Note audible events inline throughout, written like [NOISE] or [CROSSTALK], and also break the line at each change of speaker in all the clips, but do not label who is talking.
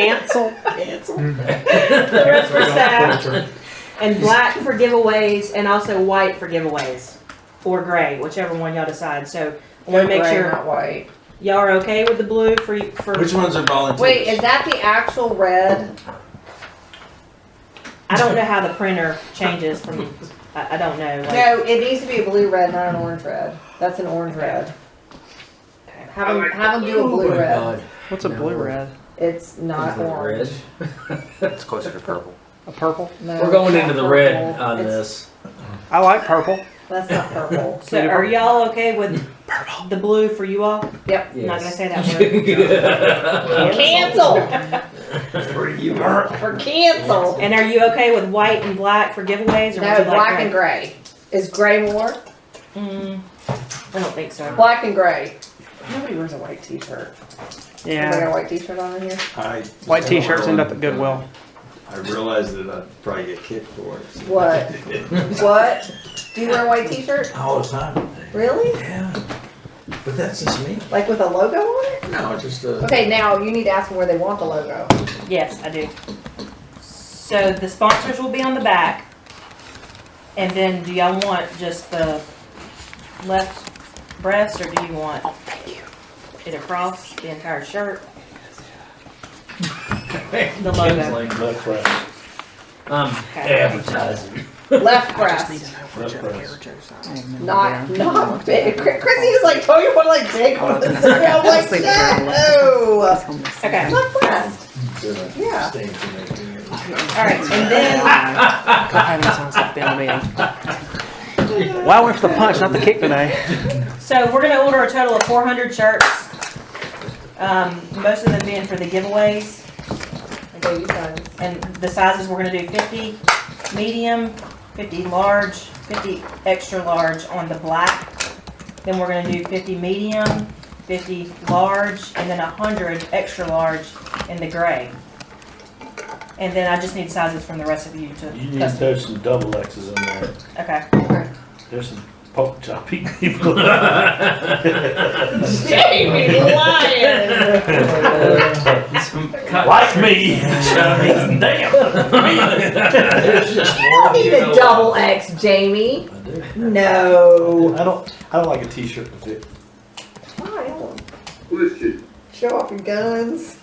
cancel
Cancel.
the rest for staff, and black for giveaways, and also white for giveaways, or gray, whichever one y'all decide. So I want to make sure
Not white.
y'all are okay with the blue for for.
Which ones are volunteers?
Wait, is that the actual red?
I don't know how the printer changes from. I, I don't know. Like,
No, it needs to be a blue red, not an orange red. That's an orange red. Have them, have them do a
Oh
blue red.
What's a
No.
blue red?
It's not orange.
It's closer to purple.
A purple?
No,
We're going
it's
into
not
the red
purple.
on
It's-
this.
I like purple.
That's
[LAUGHS]
not purple.
So are y'all okay with the blue for you all?
Yep.
I'm not gonna
Yes.
say
[LAUGHS]
that word.
[LAUGHS] Cancel
[LAUGHS] For you, Mark.
or cancel.
And are you okay with white and black for giveaways, or would you
No,
like
black
gray?
and gray. Is gray more?
Mm, I don't think so.
Black and gray. Nobody wears a white t-shirt. Anybody got
Yeah.
a white t-shirt on in here?
I,
White t-shirts end up at Goodwill.
I realized that I'd probably get kicked for it.
What? What? Do you wear a white t-shirt?
[LAUGHS] All the time.
Really?
Yeah. But that's just me.
Like with a logo on it?
No, just uh
Okay, now you need to ask them where they want the
[LAUGHS]
logo.
Yes, I do. So the sponsors will be on the back. And then do y'all want just the left breast or do you want? It across the entire shirt? The
Kim's
logo.
like,
Not fresh.
Okay.
I'm Um, advertising.
Left breast,
Fresh press.
not not big. Chr- Chrissy was like, "Oh, you want like big
[LAUGHS]
ones?" [LAUGHS] I'm like,
Like,
"No."
Okay,
Left breast. Yeah.
Abstain from making it.
alright, and then,
Wow, went for the punch, not the kick today.
so we're gonna order a total of four hundred shirts. Um, most of them being for the giveaways.
Okay, you sign.
And the sizes, we're gonna do fifty medium, fifty large, fifty extra large on the black. Then we're gonna do fifty medium, fifty large, and then hundred extra large in the gray. And then I just need sizes from the rest of you to
You need to
custom.
throw some double X's in there. [LAUGHS]
Okay,
Okay.
There's some pork choppy [LAUGHS]
[LAUGHS]
people.
Jamie lying.
like me. Chubby. Damn.
There's just
You don't
one,
need
you know.
a double X, Jamie.
I do.
No.
I don't. I don't like a T-shirt with it.
Smile. Show off your guns.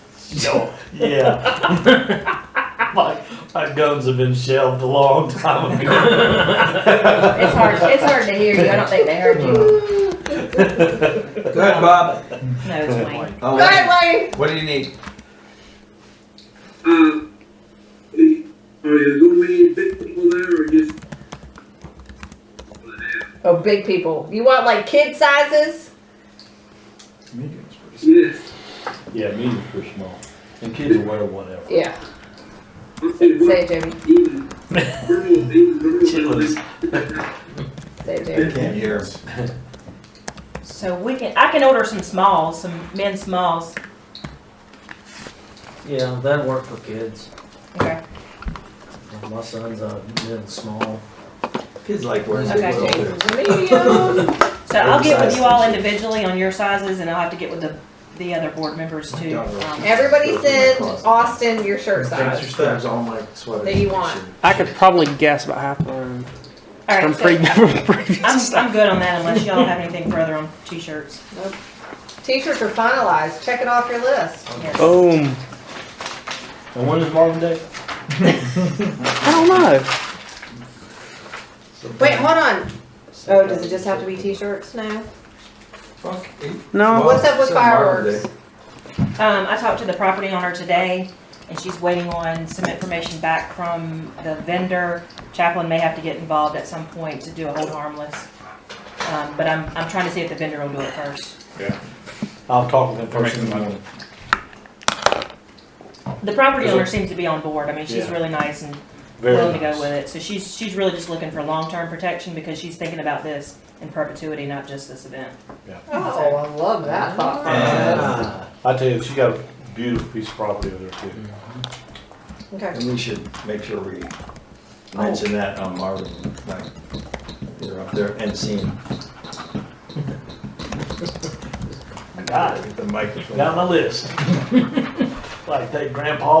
Yeah. [LAUGHS] my, my guns have been shelved a long time ago.
[LAUGHS]
It's hard. It's hard to hear you. I don't think they heard [LAUGHS] you.
Hmm. Go ahead, Bob.
no, it's Wayne.
Oh,
Go
what-
ahead, Wayne.
What do you need?
Uh, is, are there going to be any big people there or just?
Oh, big people. You want like kid sizes?
Yes.
Yeah, me is pretty small. And kids will wear whatever.
Yeah. Say
Even,
it, Jamie.
even, girls, even girls.
Chitlins.
Say it, Jamie.
They can't hear.
So we can, I can order some smalls, some men's smalls.
Yeah, that worked for kids.
Okay,
My son's a mid small.
Kids like wearing
Okay.
little things. [LAUGHS]
Medium.
so I'll get with you all
Oversized.
individually on your sizes and I'll have to get with the, the other board members too. um,
Everybody send Austin your shirt
Thanks for
size.
stuff. all my sweaters.
That you want.
I could probably guess about half of them
all right,
from
so-
pre- from previous.
I'm, I'm good on that unless y'all have anything further on t-shirts.
T-shirts are finalized. Check it off your list.
Yes.
[LAUGHS] Boom.
And when is Marvin Day?
I don't know.
Wait, hold on. Oh, does it just have to be T-shirts now?
Fuck.
No.
What's up with
Some Marvin
fireworks?
Day.
Um, I talked to the property owner today and she's waiting on some information back from the vendor. Chaplain may have to get involved at some point to do a hold harmless. Um, but I'm, I'm trying to see if the vendor will do it first.
I'll talk with him first in the morning.
The property owner seems to be on board. I mean, she's
Yeah.
really nice and willing
Very
to go with
nice.
it. So she's, she's really just looking for long-term protection because she's thinking about this in perpetuity, not just this event.
Oh, I love that thought process.
Ah,
I tell you, she got a beautiful piece of property over there too.
Okay.
And we should make sure we mention that on Marvin, like, they're up there and seeing.
Got
The microphone.
Got my list. like that grandpa